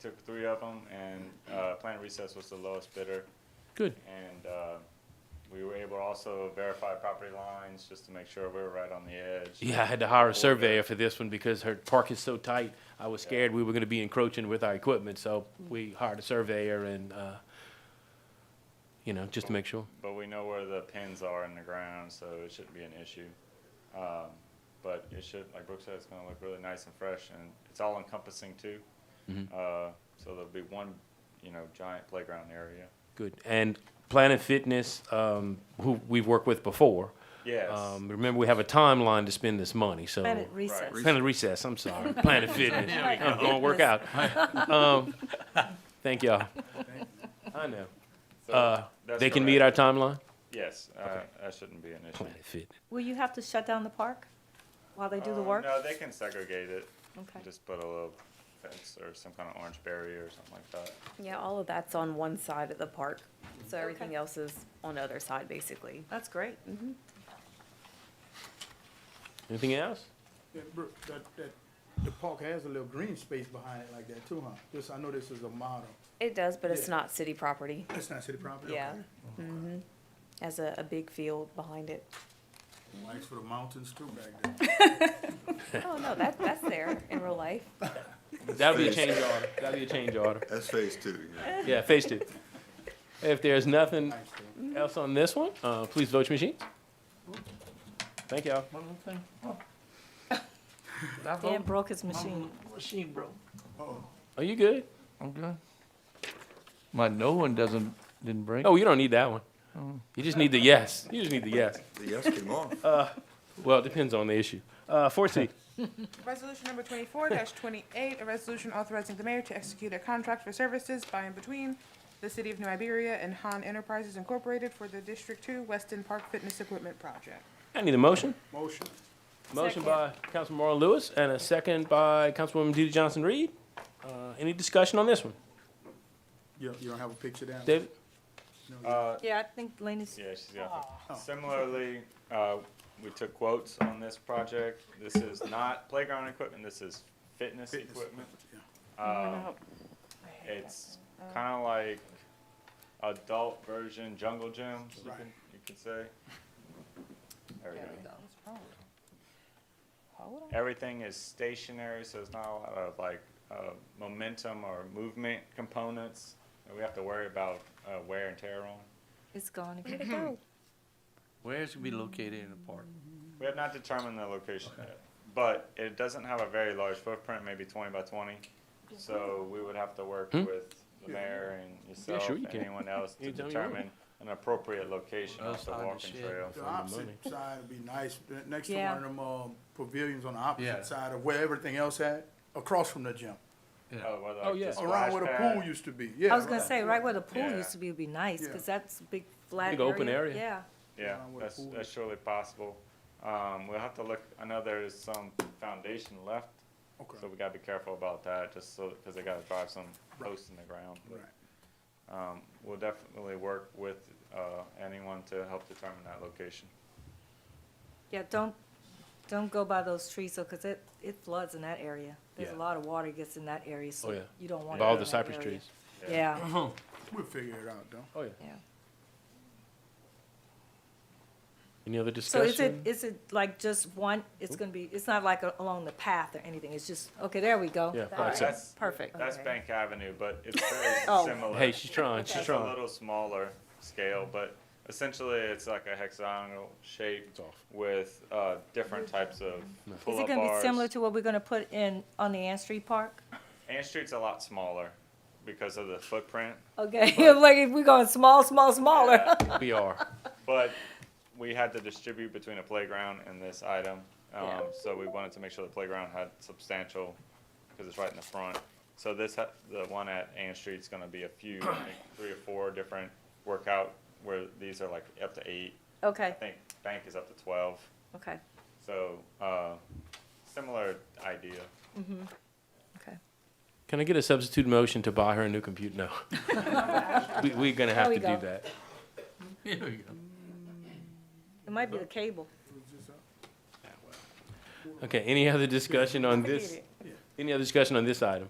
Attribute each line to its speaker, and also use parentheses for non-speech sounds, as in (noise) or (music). Speaker 1: took three of them, and uh, Planet Recess was the lowest bidder.
Speaker 2: Good.
Speaker 1: And uh, we were able to also verify property lines just to make sure we were right on the edge.
Speaker 2: Yeah, I had to hire
Speaker 1: Or
Speaker 2: a surveyor for this one because her park is so tight. I was scared we were gonna be encroaching with our equipment, so we hired a surveyor and, uh, you know, just to make sure.
Speaker 1: But we know where the pins are in the ground, so it shouldn't be an issue. Um, but it should, like Brooke said, it's going to look really nice and fresh, and it's all encompassing too.
Speaker 2: Mm-hmm.
Speaker 1: Uh, so there'll be one, you know, giant playground area.
Speaker 2: Good. And Planet Fitness, um, who we've worked with before.
Speaker 1: Yes.
Speaker 2: Um, remember, we have a timeline to spend this money, so.
Speaker 3: Planet Recess.
Speaker 2: Planet Recess, I'm
Speaker 3: (laughs)
Speaker 2: sorry. Planet Fitness.
Speaker 3: There we go.
Speaker 2: I'm going to work out. Um, thank y'all. I know.
Speaker 1: So
Speaker 2: Uh,
Speaker 1: that's
Speaker 2: they can meet
Speaker 1: correct.
Speaker 2: our timeline?
Speaker 1: Yes, uh, that shouldn't be an issue.
Speaker 2: Planet Fitness.
Speaker 3: Will you have to shut down the park while they do the
Speaker 1: Um,
Speaker 3: work?
Speaker 1: No, they can segregate it.
Speaker 3: Okay.
Speaker 1: Just put a little fence or some kind of orange barrier or something like that.
Speaker 4: Yeah, all of that's on one side of the park, so everything
Speaker 3: Okay.
Speaker 4: else is on the other side, basically.
Speaker 3: That's great.
Speaker 2: Anything else?
Speaker 5: That, br- that, that, the park has a little green space behind it like that too, huh? This, I know this is a model.
Speaker 4: It does, but it's
Speaker 5: Yeah.
Speaker 4: not city property,
Speaker 5: It's not city property.
Speaker 4: Yeah.
Speaker 5: okay.
Speaker 4: has a, a big field behind it.
Speaker 5: Likes for the mountains too back there.
Speaker 4: Oh, no, that, that's there in real (laughs) life.
Speaker 2: That'll be a change order. That'll be a change order.
Speaker 6: That's phase two, yeah.
Speaker 2: Yeah, phase two. If there's nothing
Speaker 5: Nice though.
Speaker 2: else on this one, uh, please vote your machines. Thank y'all.
Speaker 7: One little thing. Oh.
Speaker 3: Dan broke his machine.
Speaker 7: Machine, bro.
Speaker 2: Are you good?
Speaker 7: I'm good. My no one doesn't, didn't break.
Speaker 2: Oh, you don't need that one. You just need the yes. You just need the yes. Uh,
Speaker 6: The yes came off.
Speaker 2: Well, it depends on the issue. Uh, four C.
Speaker 8: Resolution number twenty-four twenty-eight, a resolution authorizing the mayor to execute a contract for services by and between the city of New Iberia and Han Enterprises Incorporated for the District Two Weston Park Fitness Equipment Project.
Speaker 2: I need a motion.
Speaker 5: Motion.
Speaker 2: Motion by Councilman Marlon Lewis and a second by Councilwoman Dee Dee Johnson Reed. Uh, any discussion on this one?
Speaker 5: You, you don't have a picture down?
Speaker 2: David?
Speaker 3: Yeah, I think Lena's,
Speaker 1: Yeah, she's got it. Similarly, uh, we took quotes on this project. This is not playground equipment, this is fitness
Speaker 5: Fitness
Speaker 1: equipment.
Speaker 5: yeah.
Speaker 1: Um, It's kind of like adult version jungle gyms, you
Speaker 5: Right.
Speaker 1: can, you could say. There we go.
Speaker 8: Hold on.
Speaker 1: Everything is stationary, so there's not a lot of like, uh, momentum or movement components that we have to worry about, uh, wear and tear on.
Speaker 4: It's gone again. go.
Speaker 7: Where's it gonna be located in the park?
Speaker 1: We have not determined the location yet, but it doesn't have a very large footprint, maybe twenty by twenty. So we would have to work with the mayor and yourself,
Speaker 2: Hmm? sure you can.
Speaker 1: anyone
Speaker 5: (laughs)
Speaker 1: else to
Speaker 2: Anytime you want.
Speaker 1: determine an appropriate location off the
Speaker 7: Outside the
Speaker 1: walking
Speaker 7: shed.
Speaker 1: trail.
Speaker 5: The
Speaker 2: the
Speaker 5: opposite
Speaker 2: money.
Speaker 5: side would be nice, The- next to
Speaker 3: Yeah.
Speaker 5: one of them, uh, pavilions on the
Speaker 7: Yeah.
Speaker 5: opposite side of where everything else at, across from the gym.
Speaker 7: (laughs)
Speaker 1: Oh, whether
Speaker 2: Oh,
Speaker 1: like
Speaker 2: yeah.
Speaker 1: the
Speaker 5: Around
Speaker 1: splash
Speaker 5: where the pool
Speaker 1: pad.
Speaker 5: used to be, yeah.
Speaker 3: I was gonna say, right where the pool
Speaker 1: Yeah.
Speaker 3: used to be would be nice,
Speaker 5: Yeah.
Speaker 3: because that's a big flat area.
Speaker 2: Big open area.
Speaker 3: Yeah.
Speaker 1: Yeah,
Speaker 5: around where the
Speaker 1: that's,
Speaker 5: pool
Speaker 1: that's
Speaker 5: is.
Speaker 1: surely possible. Um, we'll have to look, I know there's some foundation left,
Speaker 5: Okay,
Speaker 1: so we gotta be careful about that, just so, cause they gotta drive some posts in the ground. but,
Speaker 5: right.
Speaker 1: Um, we'll definitely work with, uh, anyone to help determine that location.
Speaker 3: Yeah, don't, don't go by those trees, though, because it, it floods in that area. There's a
Speaker 2: Yeah.
Speaker 3: lot of water gets in that area,
Speaker 2: Oh,
Speaker 3: so
Speaker 2: yeah.
Speaker 3: you don't want.
Speaker 2: By all the cypress trees.
Speaker 3: Yeah, Uh-huh.
Speaker 5: We'll figure it out though.
Speaker 2: Oh, yeah.
Speaker 4: Yeah.
Speaker 2: Any other
Speaker 3: so is it,
Speaker 2: discussion?
Speaker 3: is it like just one, it's gonna be, it's not like a- along the path or anything, it's just, okay, there we go.
Speaker 2: Yeah,
Speaker 3: All
Speaker 2: right.
Speaker 3: right.
Speaker 1: That's-
Speaker 3: Perfect.
Speaker 1: That's
Speaker 4: Okay.
Speaker 1: Bank Avenue, but
Speaker 3: (laughs)
Speaker 1: it's very
Speaker 3: Oh.
Speaker 1: similar.
Speaker 2: Hey, she's trying, she's
Speaker 1: It's a
Speaker 2: trying.
Speaker 1: little smaller scale, but essentially it's like a hexagonal shape
Speaker 2: It's off.
Speaker 1: with uh, different types of
Speaker 3: Is
Speaker 1: pull-up
Speaker 3: it gonna be
Speaker 1: bars.
Speaker 3: similar to what we're gonna put in, on the Ann Street
Speaker 2: (laughs)
Speaker 3: Park?
Speaker 1: Ann Street's a lot smaller because of the footprint,
Speaker 3: Okay, (laughs) like if we're going small, small, smaller.
Speaker 2: (laughs) We are.
Speaker 1: but we had to distribute between a playground and this item. Um, so we wanted to make sure the playground had substantial, because it's right in the front. So this, ha- the one at Ann Street's gonna be a few, I think, three or four different workout, where these are like up to eight. I
Speaker 3: Okay,
Speaker 1: think Bank is up to twelve.
Speaker 3: Oh. okay,
Speaker 1: So, uh, similar idea.
Speaker 3: okay.
Speaker 2: Can I get a substitute motion to buy her a new computer?
Speaker 3: (laughs)
Speaker 2: No. We, we're gonna have
Speaker 3: There
Speaker 2: to do
Speaker 3: we go.
Speaker 2: that.
Speaker 7: Here we go.
Speaker 3: It might be the cable.
Speaker 2: Okay, any other discussion on this? Any other discussion on this item?